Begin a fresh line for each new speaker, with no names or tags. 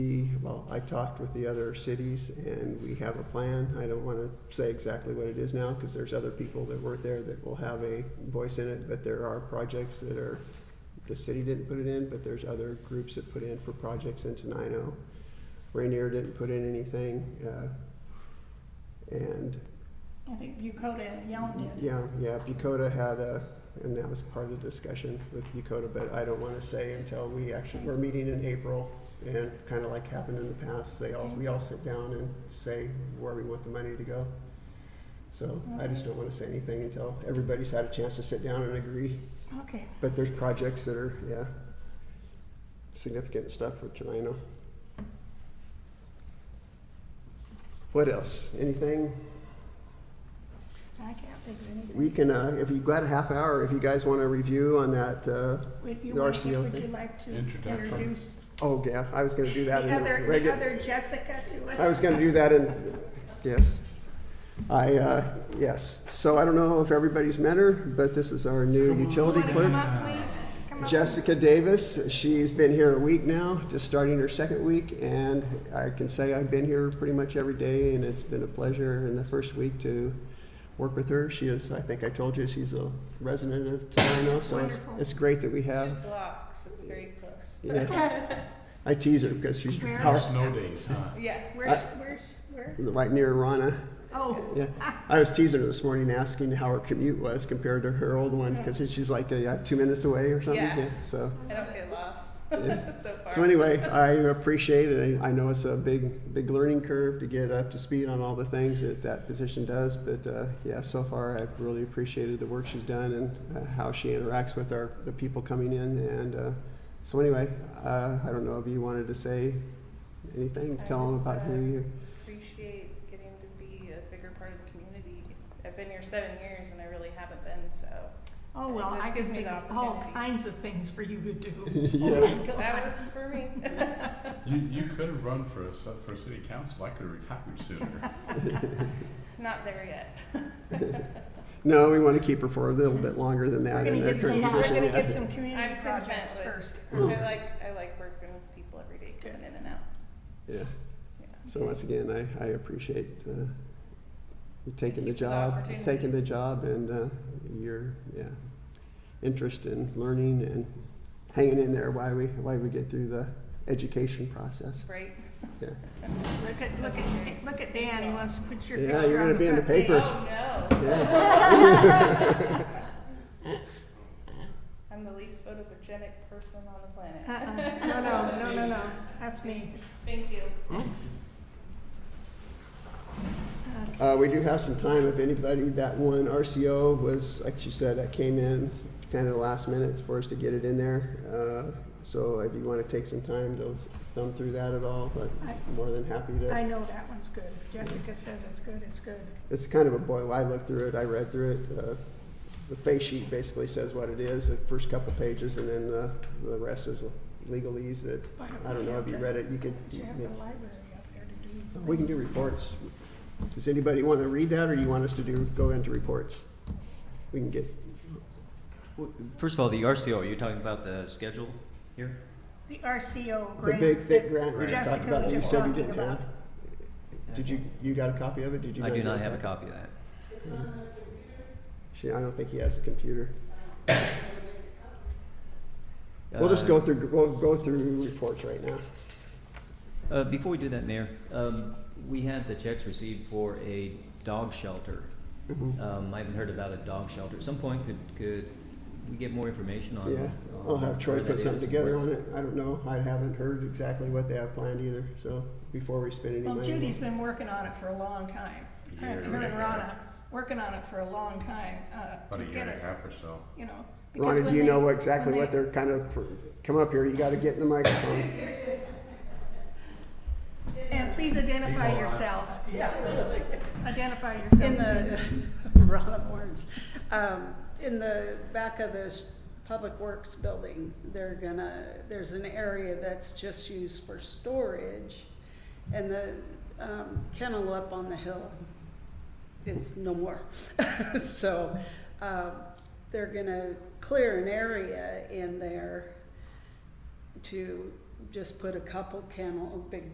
The- Well, I talked with the other cities and we have a plan. I don't want to say exactly what it is now because there's other people that weren't there that will have a voice in it. But there are projects that are, the city didn't put it in, but there's other groups that put in for projects in Tenino. Rainier didn't put in anything. uh, And
I think Yokota and Yelm did.
yeah, yeah, Bucota had a, and that was part of the discussion with Bucota, but I don't want to say until we actually, we're meeting in April. And kind of like happened in the past, they all, we all sit down and say where we want the money to go. So I just don't want to say anything until everybody's had a chance to sit down and agree.
Okay,
But there's projects that are, yeah, significant stuff for Tenino. What else? Anything?
I can't think of anything.
We can, uh, if you've got a half hour, if you guys want to review on that, uh,
Would you
the
like,
RCO
would you
thing.
like to
Introduction.
introduce
oh, yeah, I was going to do that
the
in
other,
the
the
regular.
other Jessica to us?
I was going to do that in, yes. I, uh, yes. So I don't know if everybody's met her, but this is our new utility
Wanna Come
clerk,
up, please? Come up.
Jessica Davis. She's been here a week now, just starting her second week, and I can say I've been here pretty much every day, and it's been a pleasure in the first week to work with her. She is, I think I told you, she's a resident of Tenino, so it's,
Wonderful.
it's great that we have.
Two blocks, it's very close.
Yes. I tease her because she's
Where?
power-
Snow days, huh?
Yeah.
Where's, where's, where?
right near Rana.
Oh,
Yeah. I was teasing her this morning asking how her commute was compared to her old one because she's like uh, yeah, two minutes away or something.
Yeah.
so,
I don't get lost
yeah.
so far.
so anyway, I appreciate it. I I know it's a big, big learning curve to get up to speed on all the things that that position does. But uh, yeah, so far I've really appreciated the work she's done and uh, how she interacts with our the people coming in. And uh, so anyway, uh, I don't know if you wanted to say anything,
I
tell them
just,
about
uh,
who you.
Appreciate getting to be a bigger part of the community. I've been here seven years and I really haven't been, so
oh, well,
This
I can
gives me
think
the
of all
opportunity.
kinds of things for you to do.
yeah.
Oh, my
that
God.
works for me.
You, you could have run for a, su- for city council, I could have retired sooner.
Not there yet.
No, we want to keep her for a little bit longer than that.
We're gonna
in her
get some,
current
we're
position.
gonna
yeah.
get some community
I'm content
projects
with-
first.
I like, I like working with people every day, coming in and out.
Yeah.
Yeah.
So once again, I, I appreciate uh, you taking the
Thank you for the
job,
opportunity.
taking the job and uh, your, yeah, interest in learning and hanging in there while we, while we get through the education process.
Great.
Yeah.
Look at, look at, look at Dan, he wants to put your
Yeah,
picture on the front
you're gonna
page.
be in the paper. First.
Oh, no.
Yeah.
I'm the least photogenic person on the planet.
Uh-uh, no, no, no, no, no, that's me.
Thank you.
Uh, we do have some time if anybody, that one RCO was, like you said, that came in kind of last minute for us to get it in there. Uh, So if you want to take some time to thumb through that at all, but
I-
more than happy to.
I know that one's good. If Jessica says it's good, it's good.
it's kind of a boil. I looked through it, I read through it. Uh, the face sheet basically says what it is, the first couple pages, and then the, the rest is legalese that, I don't know if you read it, you could.
But you have the library up there to do these
We
things.
can do reports. Does anybody want to read that, or do you want us to do, go into reports? We can get,
Well, First of all, the RCO, are you talking about the schedule here?
The RCO
the
grant.
big thick
that
grant we just talked
Jessica
about,
was
that you
just
said you
talking
didn't have.
about.
Did you, you got a copy of it? Did you?
I do
get
not have a copy of that.
She, I don't think he has a computer. We'll just go through, we'll go through reports right now.
Uh, uh, Before we do that, Mayor, um, we had the checks received for a dog shelter.
Mhm.
Um, I haven't heard about a dog shelter. At some point, could, could we get more information on?
Yeah,
on
I'll have Troy
where that
put
is
something
and
together
where-
on it. I don't know, I haven't heard exactly what they have planned either, so before we spend any money.
Well, Judy's been working on it for a long time. Her
Year
her
and a
and
half.
Rana, working on it for a long time, uh,
About
to
a year
get
and a
it,
half or so.
you know. because
Ronnie,
when
do you
they-
know what- exactly
when
what
they-
they're kind of, pr- come up here, you gotta get in the microphone.
And please identify yourself. Identify yourself.
In the, Ron Warren's, um, in the back of this Public Works building, they're gonna, there's an area that's just used for storage. And the, um, kennel up on the hill is no more. So, um, they're gonna clear an area in there to just put a couple kennel, big